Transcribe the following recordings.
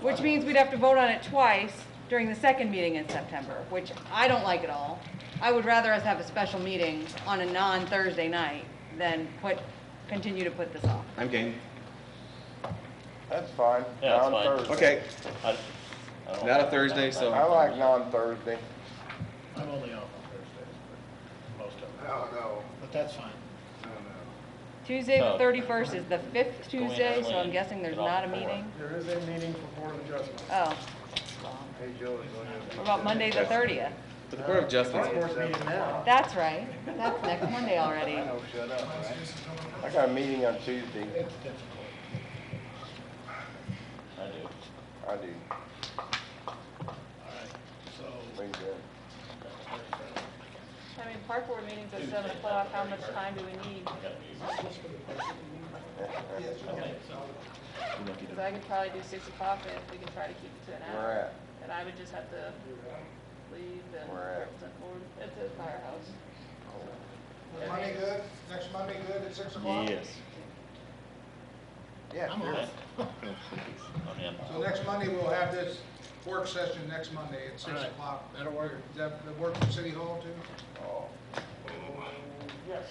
Which means we'd have to vote on it twice during the second meeting in September, which I don't like at all. I would rather us have a special meeting on a non-Thursday night than put, continue to put this off. I'm game. That's fine, Yeah, that's fine. non-Thursday. Okay, I- I don't not a like Thursday, that. I so, like non-Thursday. I'm only off on Thursdays, but most of them, don't know, but that's fine. I don't know. Tuesday, Oh. the thirty-first is the fifth Going Tuesday, as so I'm planned. guessing there's Get off not a the floor. meeting. There is a meeting for board adjustment. Oh. Hey, Joe, is going to. What about Monday, the thirtieth? to the Court of Justice. It's board meeting now. That's right. That's next Monday already. I know, shut up, all right? I got a meeting on Tuesday, It's difficult. I do. I do, All right, so, Thank you. I mean, park board meetings at seven o'clock, how much time do we need? Because I could probably do six o'clock, and if we could try to keep it to an We're hour. at, And I would just have to leave and We're at- represent board at the firehouse. Monday good, next Monday good at six o'clock? Yes. yeah, I'm on sure. it. I'm in. So next Monday, we'll have this work session next Monday at All six right, o'clock. That'll work. Is that, the work from City Hall too? Oh, Yes.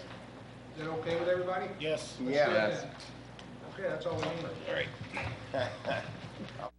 Is that okay with everybody? Yes. Yeah. Okay, that's all we need. All right.